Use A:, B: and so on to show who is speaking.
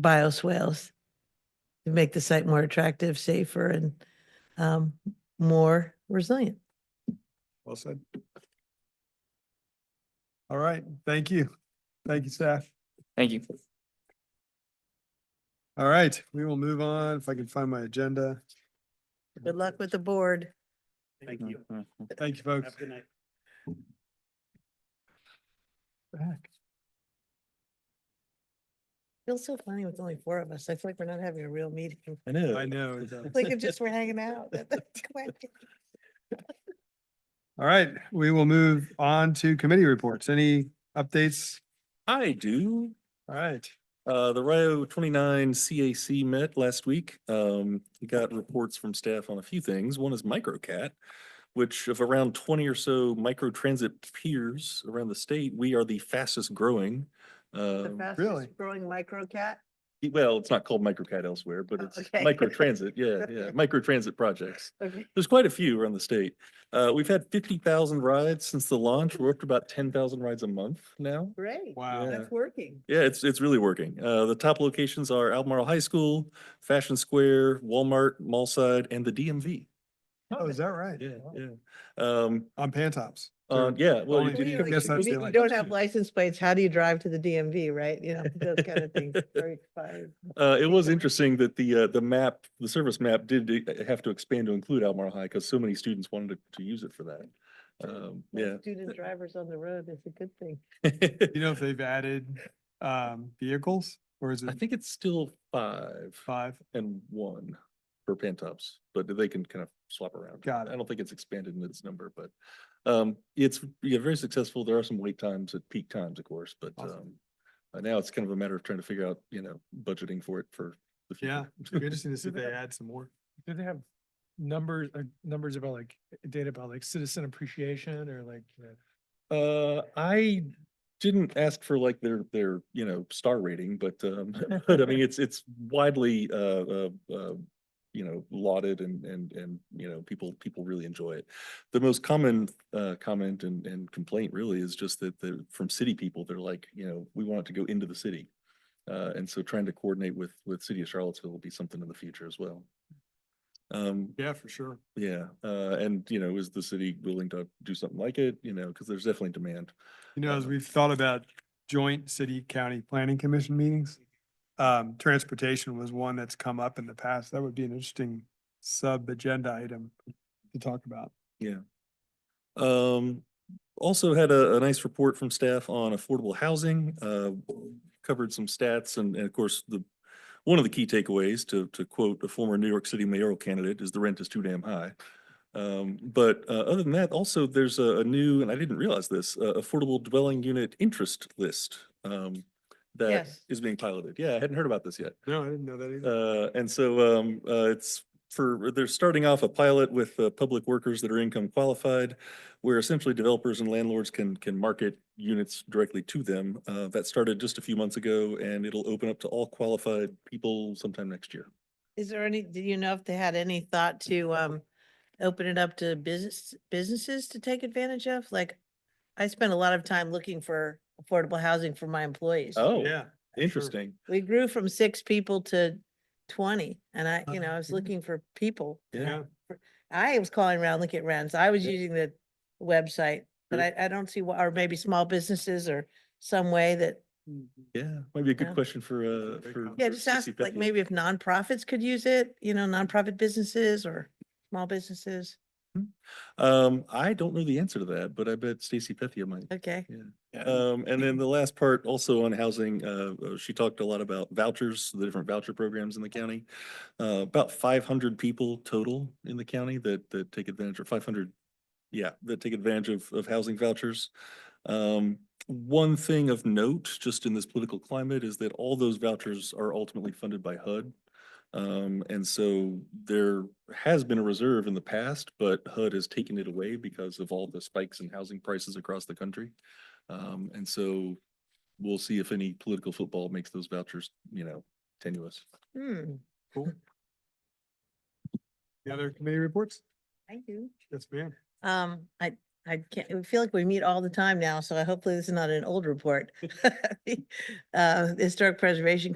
A: bioswales to make the site more attractive, safer, and um, more resilient.
B: Well said. All right, thank you. Thank you, staff.
C: Thank you.
B: All right, we will move on if I can find my agenda.
A: Good luck with the board.
D: Thank you.
C: Mm-hmm.
B: Thank you, folks.
D: Have a good night.
B: Back.
A: Feels so funny with only four of us. I feel like we're not having a real meeting.
C: I know.
B: I know. it's, uh,
A: Like if just we're hanging out.
B: All right, we will move on to committee reports. Any updates?
C: I do.
B: All right.
C: Uh, the Rio twenty-nine CAC met last week. Um, we got reports from staff on a few things. One is MicroCat, which of around twenty or so micro transit peers around the state, we are the fastest growing. Um,
B: Really?
A: Growing micro cat.
C: y- well, it's not called MicroCat elsewhere, but
A: Oh,
C: it's
A: okay.
C: micro transit. Yeah, yeah, micro transit projects.
A: Okay.
C: There's quite a few around the state. Uh, we've had fifty thousand rides since the launch. We're up to about ten thousand rides a month now.
A: Great.
B: Wow.
C: Yeah.
A: That's working.
C: Yeah, it's, it's really working. Uh, the top locations are Albemarle High School, Fashion Square, Walmart, Mallside, and the DMV.
B: Oh, is that right?
C: Yeah,
B: Wow.
C: yeah. Um,
B: On Pantops.
C: uh, yeah, well,
B: only
C: you
B: you
C: did-
B: could miss that
A: If You
B: feeling.
A: you don't have license plates. How do you drive to the DMV, right? You know, those kind of things. Very fun.
C: uh, it was interesting that the, uh, the map, the service map did uh, have to expand to include Albemarle High because so many students wanted to, to use it for that. Um, yeah.
A: Student drivers on the road is a good thing.
B: You know if they've added um vehicles or is
C: I
B: it
C: think it's still five
B: five?
C: and one for Pantops, but they can kind of swap around.
B: Got it.
C: I don't think it's expanded in its number, but um, it's, yeah, very successful. There are some wait times at peak times, of course, but
B: Awesome.
C: um, uh, now it's kind of a matter of trying to figure out, you know, budgeting for it for the
B: Yeah,
C: future.
B: it'd be interesting to see if they add some more.
E: Do they have numbers, uh, numbers about like, data about like citizen appreciation or like, you know,
C: Uh, I didn't ask for like their, their, you know, star rating, but um, but I mean, it's, it's widely uh, uh, uh, you know, lauded and, and, and, you know, people, people really enjoy it. The most common uh, comment and, and complaint really is just that the, from city people, they're like, you know, we want it to go into the city. Uh, and so trying to coordinate with, with city of Charlottesville will be something in the future as well. Um,
B: Yeah, for sure.
C: yeah, uh, and you know, is the city willing to do something like it? You know, because there's definitely demand.
B: You know, as
C: Uh,
B: we've thought about joint city county planning commission meetings, um, transportation was one that's come up in the past. That would be an interesting sub-agenda item to talk about.
C: Um, also had a, a nice report from staff on affordable housing, uh, covered some stats and, and of course, the, one of the key takeaways, to, to quote a former New York City mayoral candidate, is the rent is too damn high. Um, but, uh, other than that, also there's a, a new, and I didn't realize this, uh, affordable dwelling unit interest list, um, that
A: Yes.
C: is being piloted. Yeah, I hadn't heard about this yet.
B: No, I didn't know that either.
C: Uh, and so, um, uh, it's for, they're starting off a pilot with, uh, public workers that are income qualified, where essentially developers and landlords can, can market units directly to them. Uh, that started just a few months ago and it'll open up to all qualified people sometime next year.
A: Is there any, do you know if they had any thought to um open it up to business businesses to take advantage of? Like, I spent a lot of time looking for affordable housing for my employees.
C: Oh,
B: Yeah.
C: interesting.
A: We grew from six people to twenty and I, you know, I was
B: yeah.
C: Oh.
A: looking for people.
C: Yeah.
A: I was calling around, looking at rents. I was
C: Yeah.
A: using the website, but I, I don't see why, or maybe small businesses or some way that,
C: Yeah. Might be
A: Yeah.
C: a good question for,
B: That's a
C: uh,
B: great
C: for.
B: concept.
A: yeah,
C: for
A: just ask,
C: Cissy
A: like
C: Becky.
A: maybe if nonprofits could use it, you know, nonprofit businesses or small businesses.
C: Um, I don't know the answer to that, but I bet Stacy Pethia might.
A: Okay.
C: Um, and then the last part also on housing, uh, uh, she talked a lot about vouchers, the different voucher programs in the county. Uh, about five hundred people total in the county that, that take advantage of five hundred, yeah, that take advantage of, of housing vouchers. Um, one thing of note, just in this political climate, is that all those vouchers are ultimately funded by HUD. Um, and so there has been a reserve in the past, but HUD has taken it away because of all the spikes in housing prices across the country. Um, and so we'll see if any political football makes those vouchers, you know, tenuous.
A: Hmm,
B: Cool. The other committee reports?
A: I do.
B: Yes, ma'am.
A: Um, I, I can't, I feel like we meet all the time now, so I hopefully this is not an old report. Uh, Historic Preservation